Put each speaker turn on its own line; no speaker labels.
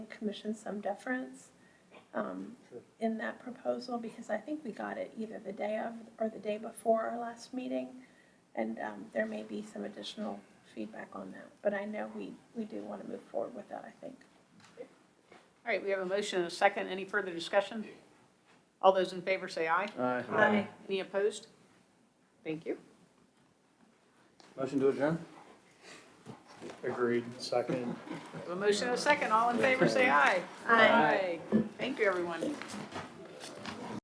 commission some deference um,
Sure.
in that proposal, because I think we got it either the day of or the day before our last meeting. And um, there may be some additional feedback on that, but I know we, we do want to move forward with that, I think.
All right, we have a motion and a second. Any further discussion? All those in favor say aye.
Aye.
Aye.
Any opposed? Thank you.
Motion to adjourn?
Agreed, second.
We have A motion and a second. All in favor say aye.
Aye.
Thank you, everyone.